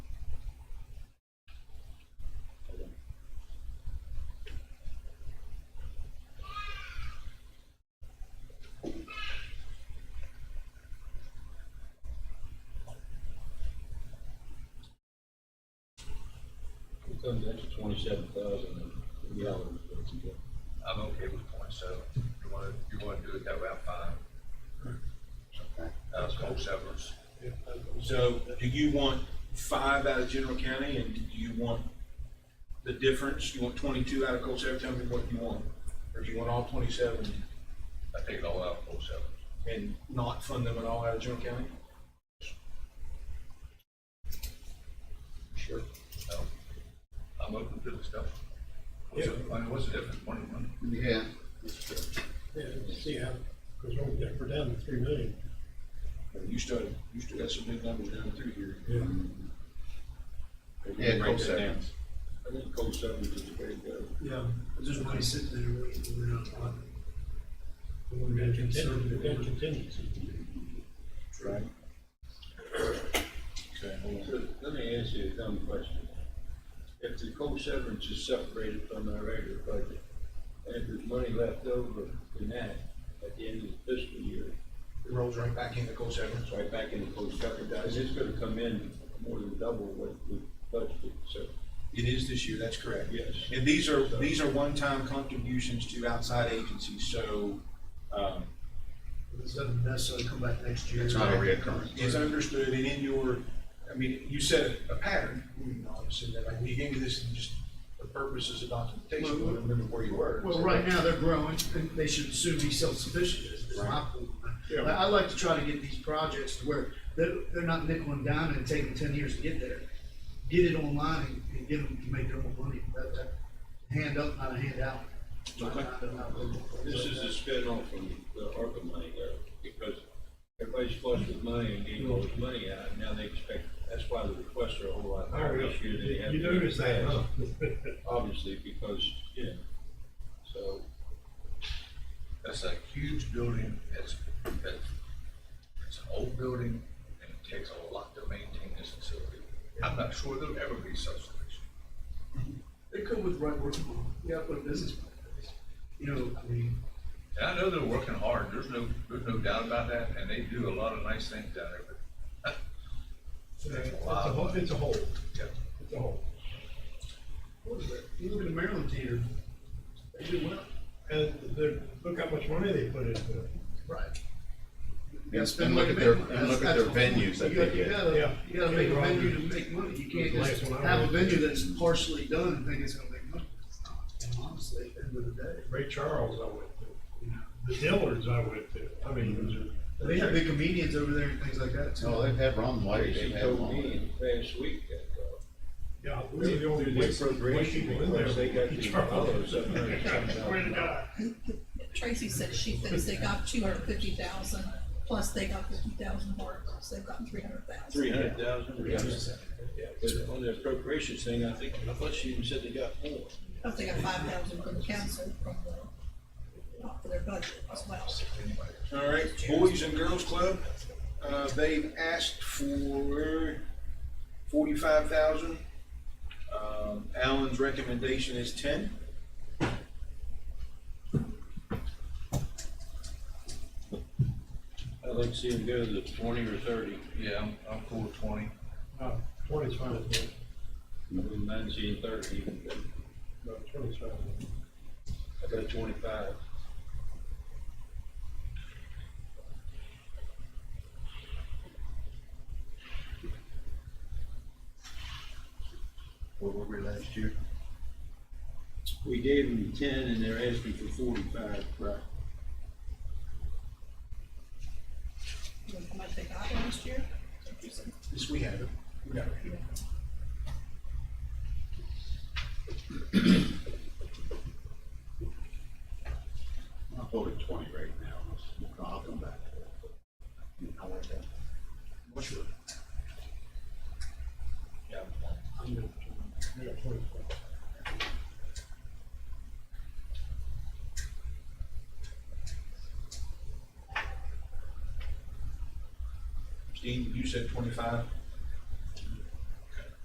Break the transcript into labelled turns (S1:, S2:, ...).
S1: comes out to twenty-seven thousand gallons.
S2: I'm okay with point seven. You wanna, you wanna do it that way, I'm fine. That's whole severance.
S3: So do you want five out of general county and do you want the difference? You want twenty-two out of Cold Sav? Tell me what you want. Or do you want all twenty-seven
S2: I take it all out, whole severance.
S3: and not fund them at all out of general county?
S1: Sure.
S2: So I'm open to the stuff. What's the, I mean, what's the difference, twenty-one?
S4: Yeah.
S5: Yeah, see how, because we're, yeah, we're down to three million.
S3: Or You still, you still got some big numbers down through here.
S5: Yeah.
S4: Yeah,
S3: Cold
S4: Cold Sav.
S3: Sav.
S1: I think coal seven is the way to go.
S5: Yeah, just money sitting there, we're not, we're gonna continue, we're gonna continue.
S3: Right. Okay, hold on.
S1: So let me ask you a dumb question. If the coal severance is separated from our regular budget, and if there's money left over in that at the end of the fiscal year,
S3: It rolls right back into Cold Sav.
S1: it's right back into coal severance, guys, it's gonna come in more than double what we budgeted, so,
S3: It is this year, that's correct.
S1: yes.
S3: And these are, these are one-time contributions to outside agencies, so, um,
S5: This doesn't necessarily come back next year.
S4: It's not a reoccurring.
S3: is understood and in your, I mean, you said a pattern, you know, you said that, like, you gave me this and just the purposes of documentation, I remember where you were.
S6: Well, right now, they're growing, and they should soon be self-sufficient, is is my point. But I like to try to get these projects to where they're, they're not nickel and dime and taking ten years to get there. Get it online and get them to make their own money, that, that, hand up, not a handout.
S1: This is a spin-off from the ARPA money there, because everybody's flushed with money and getting all this money out, and now they expect, that's why the requests are a whole lot higher this year than they have.
S5: You noticed that, huh?
S1: Obviously, because, you know, so,
S2: That's a huge building, it's, it's, it's an old building, and it takes a lot to maintain this facility. I'm not sure there'll ever be self-sufficient.
S6: They come with right work, you gotta put a business plan in place. You know, I mean,
S2: And I know they're working hard, there's no, there's no doubt about that, and they do a lot of nice things down there, but
S5: It's a whole, it's a whole,
S2: yeah.
S5: it's a whole.
S6: what is that? You look at the Maryland team, they do well.
S5: And they're, look how much money they put into it.
S6: Right.
S4: And and look at their, and look at their venues that
S6: You gotta,
S4: they
S6: you
S5: Yeah.
S4: get.
S6: gotta, you gotta make a
S5: Yeah.
S6: venue to make money, you can't just
S5: Last one I
S6: have a
S5: went to.
S6: venue that's partially done and think it's gonna make money. It's not. Honestly, at the end of the day,
S5: Ray Charles I went to,
S6: you know.
S5: the Dillards I went to, I mean, those are-
S6: They have big comedians over there and things like that too.
S4: No, they've had Ron White,
S1: they
S4: they've had
S1: told
S4: Long.
S1: me last week that, uh,
S5: yeah, we were the only
S1: through
S5: white
S1: the appropriation
S5: people in there.
S1: request, they got
S5: Ray
S1: the
S5: Charles.
S1: dollars up there.
S5: Swear to God.
S7: Tracy said she thinks they got two hundred fifty thousand, plus they got fifty thousand more, so they've gotten three hundred thousand.
S1: Three hundred thousand, but on the appropriations thing, I think, I thought she even said they got more.
S7: Plus they got five thousand from the council from the, not for their budget as well.
S3: All right, Boys and Girls Club, uh, they've asked for forty-five thousand. Um, Alan's recommendation is ten.
S1: I'd like to see them go to twenty or thirty,
S2: Yeah, I'm, I'm cool with twenty.
S5: Uh, Twenty's fine with me.
S1: I wouldn't mind seeing thirty even, but
S5: No, twenty's fine with me.
S1: I got twenty-five.
S2: What were we last year?
S1: We gave them ten and they're asking for forty-five. Right.
S7: You know How much they got last year?
S3: This we have it. We got it.
S4: I'll vote at twenty right now. I'll come back. I like that.
S3: What's your? Yeah,
S5: I'm gonna- I got twenty-five.
S3: Steve, you said twenty-five.